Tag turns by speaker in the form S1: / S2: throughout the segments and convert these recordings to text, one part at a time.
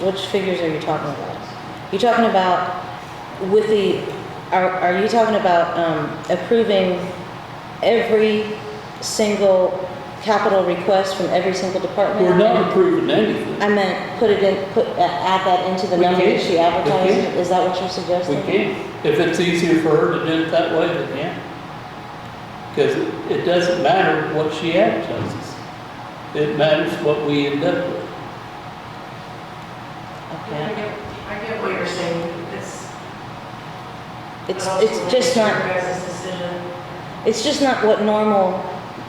S1: Which figures are you talking about? You talking about with the, are, are you talking about, um, approving every single capital request from every single department?
S2: We're not approving anything.
S1: I meant, put it in, put, uh, add that into the
S2: We
S1: number that
S2: can.
S1: she
S2: We
S1: advertised,
S2: can.
S1: is that what you're
S2: We
S1: suggesting?
S2: can. If it's easier for her to do it that way, then yeah. Because it doesn't matter what she advertises. It matters what we end up with.
S1: Okay.
S3: I get, I get what you're saying, it's.
S1: It's,
S3: but also
S1: it's just
S3: Your
S1: not,
S3: guys' decision.
S1: it's just not what normal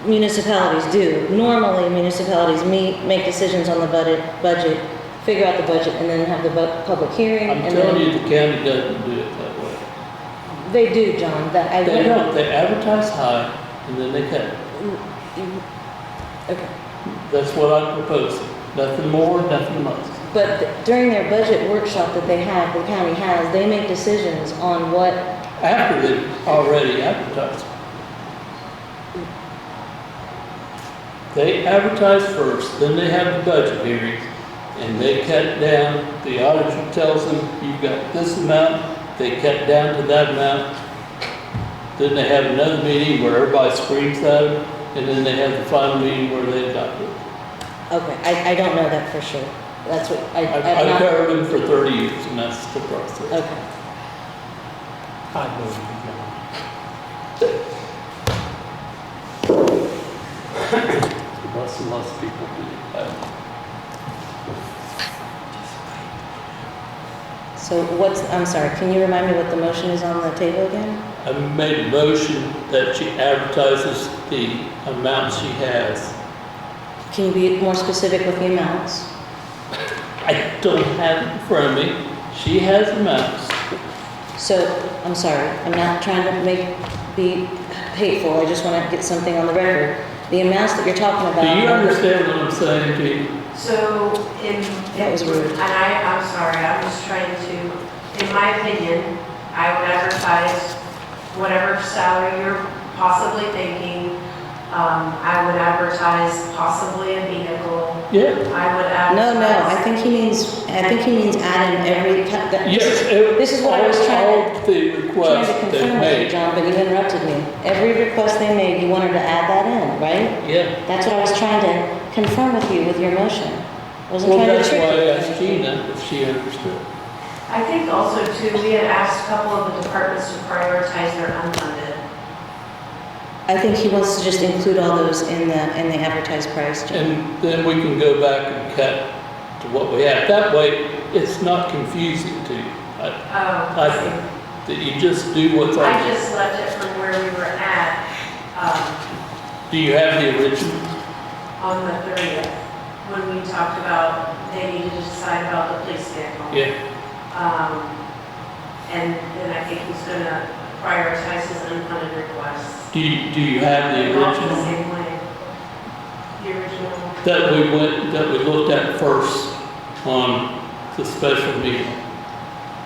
S1: municipalities do. Normally municipalities meet, make decisions on the budget, budget, figure out the budget, and then have the bu- public hearing,
S2: I'm
S1: and
S2: telling you,
S1: then,
S2: the county doesn't do it that way.
S1: they do, John, that I.
S2: They don't, they advertise high and then they cut it.
S1: Okay,
S2: That's what I'm proposing. Nothing more, nothing less.
S1: but during their budget workshop that they have, the county has, they make decisions on what,
S2: After they already advertised. They advertise first, then they have the budget hearings, and they cut it down. The auditor tells them, you've got this amount, they cut it down to that amount. Then they have another meeting where everybody screams at them, and then they have the final meeting where they adopt it.
S1: okay, I, I don't know that for sure. That's what, I,
S2: I've
S1: I'm
S2: I've
S1: not,
S2: covered them for thirty years, and that's the process.
S1: okay.
S2: I know you don't. Less and less people do. that.
S1: So what's, I'm sorry, can you remind me what the motion is on the table again?
S2: I made a motion that she advertises the amount she has.
S1: Can you be more specific with the amounts?
S2: I don't have it in front of me. She has amounts.
S1: So, I'm sorry, I'm not trying to make, be hateful, I just want to get something on the record. The amounts that you're talking
S2: Do
S1: about.
S2: you understand what I'm saying to you?
S3: So in.
S1: That was rude.
S3: And I, I'm sorry, I'm just trying to, in my opinion, I would advertise whatever salary you're possibly thinking. Um, I would advertise possibly a vehicle.
S2: Yeah.
S3: I would
S1: No,
S3: advertise.
S1: no, I think he means, I think he means add in every, ca- that- this
S2: Yes.
S1: is-
S2: it-
S1: this is what I was
S2: all-
S1: trying
S2: All the
S1: trying to
S2: requests they
S1: confirm with you,
S2: made.
S1: John, but you interrupted me. Every request they made, you wanted to add that in, right?
S2: Yeah.
S1: That's what I was trying to confirm with you with your motion. Wasn't
S2: Well,
S1: trying to
S2: that's why
S1: trick you.
S2: I asked Gina if she understood.
S3: I think also too, we had asked a couple of the departments to prioritize their unfunded.
S1: I think he wants to just include all those in the, in the advertised price, John.
S2: And then we can go back and cut to what we have. That way, it's not confusing to you. I-
S3: Oh,
S2: I think that you just do what's on.
S3: I just left it from where we were at, um,
S2: Do you have the original?
S3: on the thirtieth, when we talked about they needed to decide about the police vehicle.
S2: Yeah.
S3: Um, and then I think he's gonna prioritize his unfunded requests.
S2: Do you, do you have the
S3: Not The
S2: original?
S3: same way. The original.
S2: That we went, that we looked at first on the special meeting.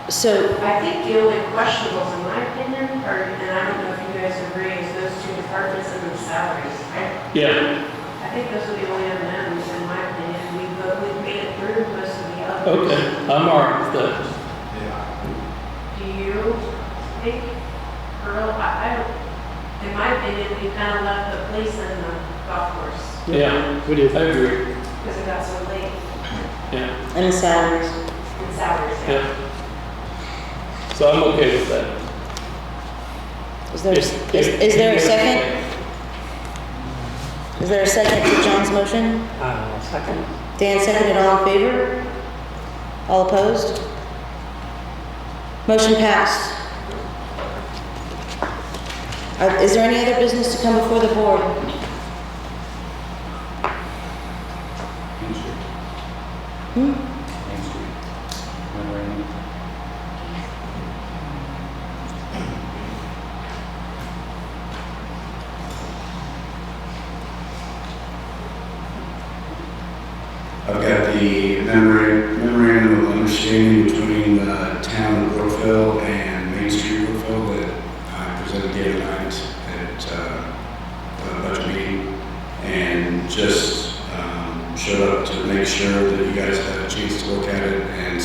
S1: So,
S3: I think the only questionables, in my opinion, are, and I don't know if you guys agree, is those two departments and the salaries. I,
S2: Yeah.
S3: I think those are the only unknowns, in my opinion. We, but we've made it through most of the others.
S2: Okay, I'm all right with that.
S3: Do you think, Earl, I, I, don't- in my opinion, we kind of left the police and the golf course
S2: Yeah. We did. I agree.
S3: because it got so late
S2: Yeah,
S1: and the salaries,
S3: in salaries.
S2: yeah. So I'm okay with that.
S1: is there, is,
S2: If- if-
S1: is there a second? Is there a second to John's motion?
S2: Uh, second.
S1: Dan seconded, all in favor? All opposed? Motion passed. Uh, Is there any other business to come before the board?